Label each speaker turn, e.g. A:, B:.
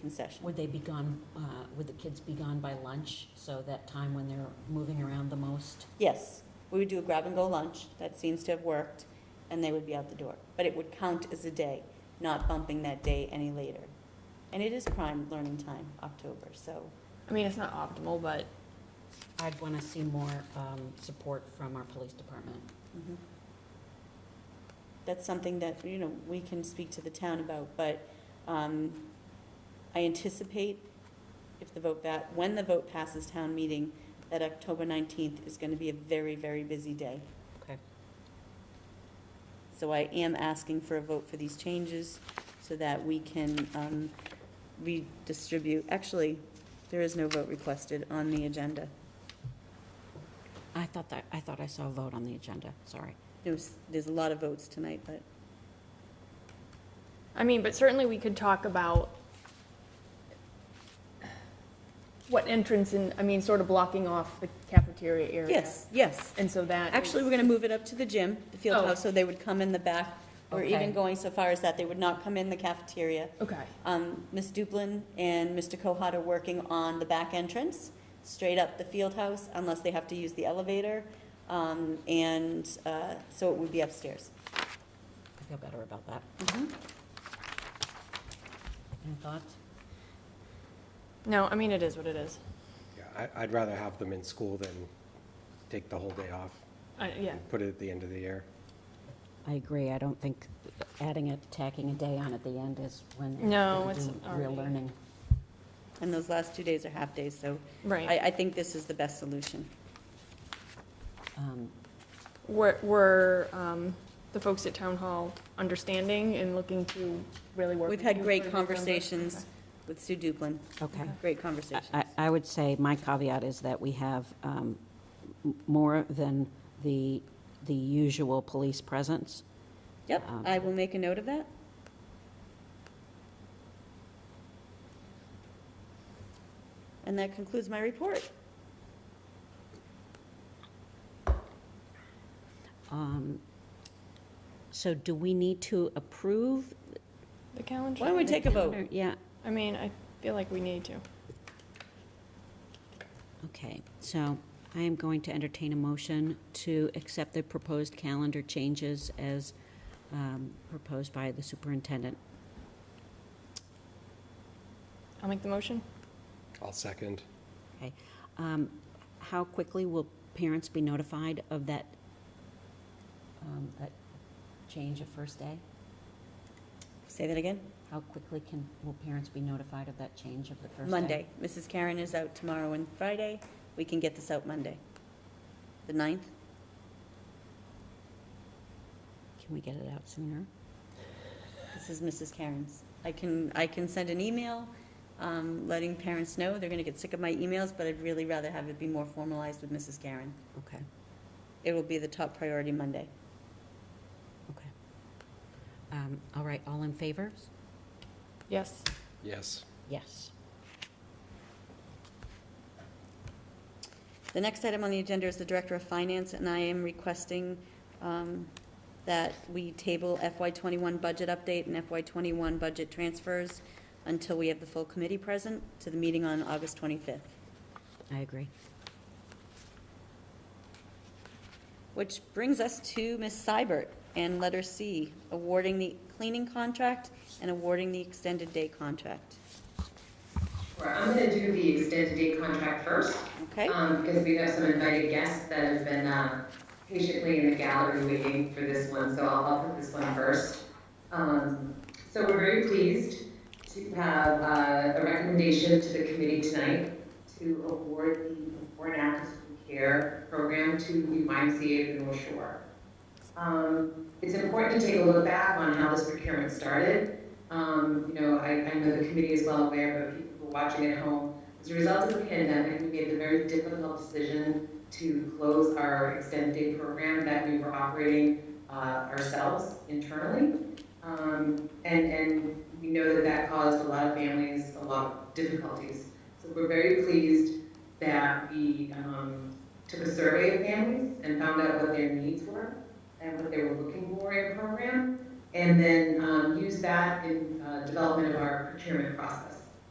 A: concession.
B: Would they be gone, uh, would the kids be gone by lunch, so that time when they're moving around the most?
A: Yes, we would do a grab-and-go lunch, that seems to have worked, and they would be out the door. But it would count as a day, not bumping that day any later. And it is prime learning time, October, so,
C: I mean, it's not optimal, but
B: I'd want to see more um, support from our police department.
A: mhm. that's something that, you know, we can speak to the town about, but um, I anticipate if the vote, that, when the vote passes town meeting, that October 19th is going to be a very, very busy day.
B: Okay.
A: So I am asking for a vote for these changes so that we can um, redistribute. Actually, there is no vote requested on the agenda.
B: I thought that, I thought I saw a vote on the agenda, sorry.
A: There's, there's a lot of votes tonight, but
C: I mean, but certainly we could talk about what entrance and, I mean, sort of blocking off the cafeteria area.
A: yes, yes.
C: And so that.
A: Actually, we're going to move it up to the gym, the field
C: Oh.
A: house, so they would come in the back. We're even
B: Okay.
A: going so far as that they would not come in the cafeteria.
C: Okay.
A: Um, Ms. Duplin and Mr. Kohat are working on the back entrance, straight up the field house, unless they have to use the elevator. Um, and, uh, so it would be upstairs.
B: I feel better about that.
A: Mhm.
B: Any thoughts?
C: No, I mean, it is what it is.
D: Yeah, I, I'd rather have them in school than take the whole day off.
C: I, yeah.
D: and Put it at the end of the year.
B: I agree, I don't think adding it, tacking a day on at the end is when.
C: No,
B: we
C: it's
B: do Real
C: already-
B: learning.
A: And those last two days are half-days, so I,
C: Right.
A: I think this is the best solution.
B: Um,
C: Were, were, um, the folks at town hall understanding and looking to really work?
A: We've
C: with
A: had
C: you
A: great
C: for November?
A: conversations with Sue Duplin,
B: Okay.
A: great conversations.
B: I, I would say my caveat is that we have um, m- more than the, the usual police presence.
A: Yep,
B: Um,
A: I will make a note of that. And that concludes my report.
B: Um, So do we need to approve?
C: Okay. The calendar.
A: Why don't we take a vote?
B: Or- Yeah,
C: I mean, I feel like we need to.
B: okay. So I am going to entertain a motion to accept the proposed calendar changes as um, proposed by the superintendent.
C: I'll make the motion.
D: I'll second.
B: Um, How quickly will parents be notified of that, um, that change of first day?
A: Say that again?
B: How quickly can, will parents be notified of that change of the first day?
A: Monday. Mrs. Karen is out tomorrow and Friday. We can get this out Monday. The ninth?
B: Can we get it out sooner?
A: This is Mrs. Karen's. I can, I can send an email, um, letting parents know. They're gonna get sick of my emails, but I'd really rather have it be more formalized with Mrs. Karen.
B: Okay,
A: It will be the top priority Monday.
B: okay. Um, All right, all in favor?
C: Yes.
D: Yes.
B: Yes.
A: The next item on the agenda is the Director of Finance, and I am requesting um, that we table FY twenty-one budget update and FY twenty-one budget transfers until we have the full committee present to the meeting on August twenty-fifth,
B: I agree.
A: which brings us to Ms. Seibert and letter C, awarding the cleaning contract and awarding the extended day contract.
E: Sure, I'm gonna do the extended day contract first.
A: Okay?
E: Um, because we have some invited guests that have been, uh, patiently in the gallery waiting for this one, so I'll, I'll put this one first. Um, so we're very pleased to have, uh, a recommendation to the committee tonight to award the Before and After School Care Program to the YMCA of the North Shore. Um, it's important to take a look back on how this procurement started. Um, you know, I, I know the committee is well aware, but people who are watching at home, as a result of the pandemic, we made the very difficult decision to close our extended day program that we were operating uh, ourselves internally. Um, And, and we know that that caused a lot of families a lot of difficulties. So we're very pleased that we um, took a survey of families and found out what their needs were and what they were looking for in a program, and then um, used that in uh, development of our procurement process.